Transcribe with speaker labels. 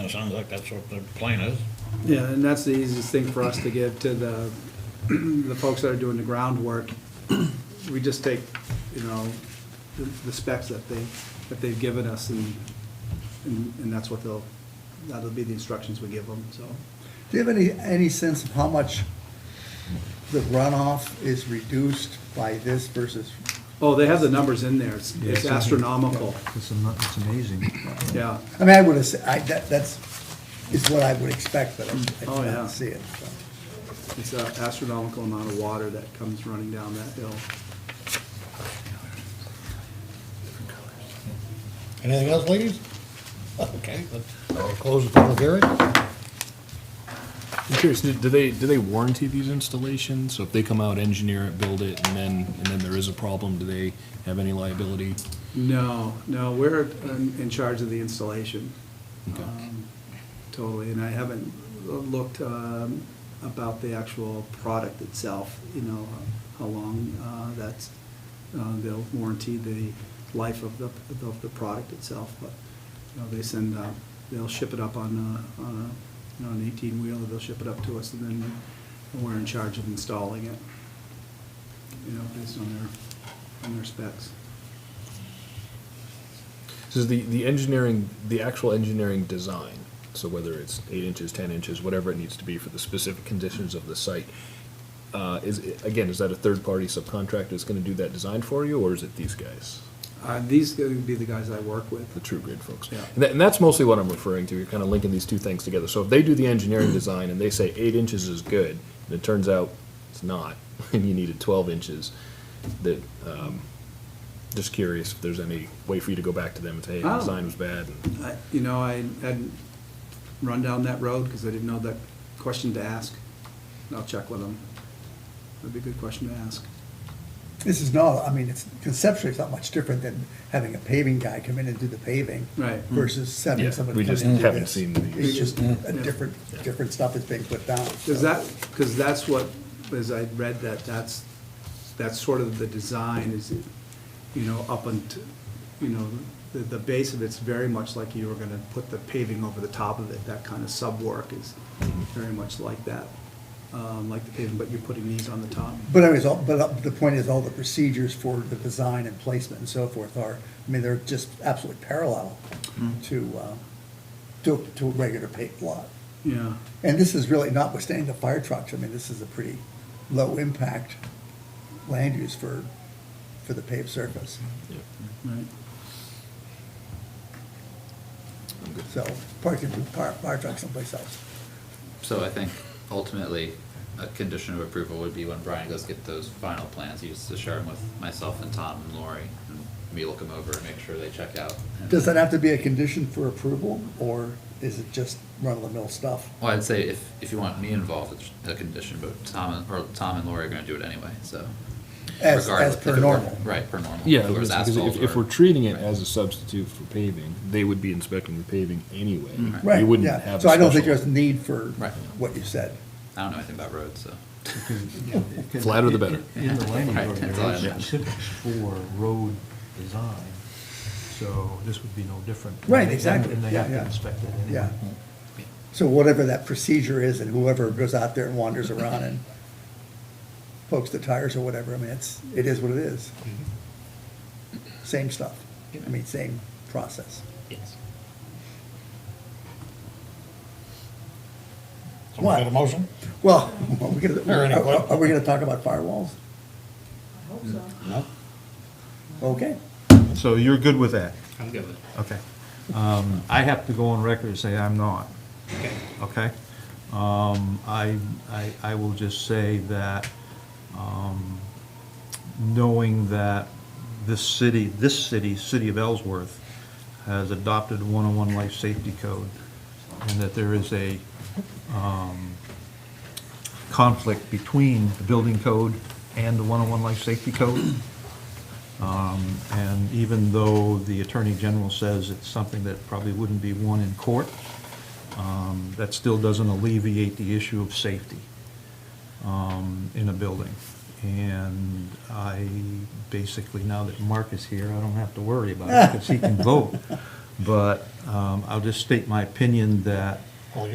Speaker 1: sounds like that's what the plan is.
Speaker 2: Yeah, and that's the easiest thing for us to give to the, the folks that are doing the groundwork. We just take, you know, the the specs that they, that they've given us and, and and that's what they'll, that'll be the instructions we give them, so.
Speaker 3: Do you have any, any sense of how much the runoff is reduced by this versus,
Speaker 2: Oh, they have the numbers in there. It's it's
Speaker 4: Yeah.
Speaker 2: astronomical,
Speaker 4: It's am- it's amazing.
Speaker 2: yeah.
Speaker 3: I mean, I would have, said- I, that, that's, is what I would expect, but I I
Speaker 2: Oh, yeah.
Speaker 3: didn't see it. so.
Speaker 2: It's an astronomical amount of water that comes running down that hill.
Speaker 1: Anything else, ladies? Okay, then I'll close the public hearing.
Speaker 5: I'm curious, do do they, do they warranty these installations? So if they come out, engineer it, build it, and then, and then there is a problem, do they have any liability?
Speaker 2: No, no, we're in in charge of the installation.
Speaker 5: Okay.
Speaker 2: um, Totally, and I haven't looked um, about the actual product itself, you know, how long uh, that's, uh, they'll warranty the life of the, of the product itself, but, you know, they send, uh, they'll ship it up on, a- on a, you know, an eighteen-wheeler, they'll ship it up to us, and then we're in charge of installing it, you know, based on their, on their specs.
Speaker 5: So is the, the engineering, the actual engineering design, so whether it's eight inches, ten inches, whatever it needs to be for the specific conditions of the site, uh, is, it- again, is that a third-party subcontractor that's gonna do that design for you, or is it these guys?
Speaker 2: Uh, These would be the guys I work with.
Speaker 5: the true grid folks.
Speaker 2: Yeah.
Speaker 5: And, that, and that's mostly what I'm referring to. You're kind of linking these two things together. So if they do the engineering design and they say eight inches is good, and it turns out it's not, and you needed 12 inches, that um, just curious if there's any way for you to go back to them and say, hey, the
Speaker 2: Oh.
Speaker 5: design was bad. And,
Speaker 2: I- You know, I hadn't run down that road because I didn't know that question to ask. I'll check with them. That'd be a good question to ask.
Speaker 3: This is no, I mean, it's conceptually, it's not much different than having a paving guy come in and do the paving.
Speaker 2: Right. Mm.
Speaker 3: Versus having
Speaker 5: Yeah,
Speaker 3: somebody
Speaker 5: we
Speaker 3: come in
Speaker 5: just
Speaker 3: and do
Speaker 5: haven't
Speaker 3: this.
Speaker 5: seen these.
Speaker 3: It's just a
Speaker 2: Yeah.
Speaker 3: different, different stuff that's being put down. so.
Speaker 2: Because that, because that's what, as I read that, that's, that's sort of the design is, you know, up and, you know, the, the base of it's very much like you were gonna put the paving over the top of it. That kind of sub-work is very much like that, um, like the paving, but you're putting these on the top.
Speaker 3: But anyways, all- but uh, the point is, all the procedures for the design and placement and so forth are, I mean, they're just absolutely parallel to, uh, to, to a regular paved lot.
Speaker 2: Yeah.
Speaker 3: And this is really notwithstanding the fire trucks, I mean, this is a pretty low-impact land use for, for the paved surface.
Speaker 5: yeah.
Speaker 2: Right.
Speaker 3: So, parking, fire, fire trucks someplace else.
Speaker 6: So I think ultimately, a condition of approval would be when Brian goes get those final plans, he used to share them with myself and Tom and Lori, and we look them over and make sure they check out. And-
Speaker 3: Does that have to be a condition for approval, or is it just run-of-the-mill stuff?
Speaker 6: Well, I'd say if, if you want me involved, it's a condition, but Tom, and- or Tom and Lori are gonna do it anyway, so.
Speaker 3: As, as
Speaker 6: regardless, if
Speaker 3: per
Speaker 6: it were-
Speaker 3: normal?
Speaker 6: Right, per normal.
Speaker 5: Yeah,
Speaker 6: If it was
Speaker 5: because
Speaker 6: asphalt
Speaker 5: if, if
Speaker 6: or-
Speaker 5: we're treating it as a substitute for paving, they would be inspecting the paving anyway.
Speaker 3: Mm-hmm. Right,
Speaker 5: You wouldn't
Speaker 3: yeah,
Speaker 5: have a
Speaker 3: so I don't think
Speaker 5: special-
Speaker 3: there's need for
Speaker 6: Right.
Speaker 3: what you said.
Speaker 6: I don't know anything about roads, so.
Speaker 5: Flatter the better.
Speaker 4: In the landing
Speaker 6: Right, that's all I know.
Speaker 4: ordinance, it's specific for road design, so this would be no different.
Speaker 3: Right, exactly,
Speaker 4: And they
Speaker 3: yeah,
Speaker 4: have
Speaker 3: yeah.
Speaker 4: to inspect it anyway.
Speaker 3: Yeah. So whatever that procedure is, and whoever goes out there and wanders around and pokes the tires or whatever, I mean, it's, it is what it is. Same stuff, I mean, same process.
Speaker 6: Yes.
Speaker 1: Someone got a
Speaker 3: What?
Speaker 1: motion?
Speaker 3: Well, are we gonna,
Speaker 1: Or any
Speaker 3: are-
Speaker 1: question?
Speaker 3: are we gonna talk about firewalls?
Speaker 1: No.
Speaker 3: Okay.
Speaker 4: So you're good with that?
Speaker 6: I'm good with it.
Speaker 4: Okay. Um, I have to go on record and say I'm not. Okay. Um, I, I, I will just say that, um, knowing that this city, this city, City of Ellsworth, has adopted 101 Life Safety Code, and that there is a, um, conflict between the building code and the 101 Life Safety Code. Um, And even though the Attorney General says it's something that probably wouldn't be won in court, um, that still doesn't alleviate the issue of safety um, in a building. And I, basically, now that Mark is here, I don't have to worry about it because he can vote. But um, I'll just state my opinion that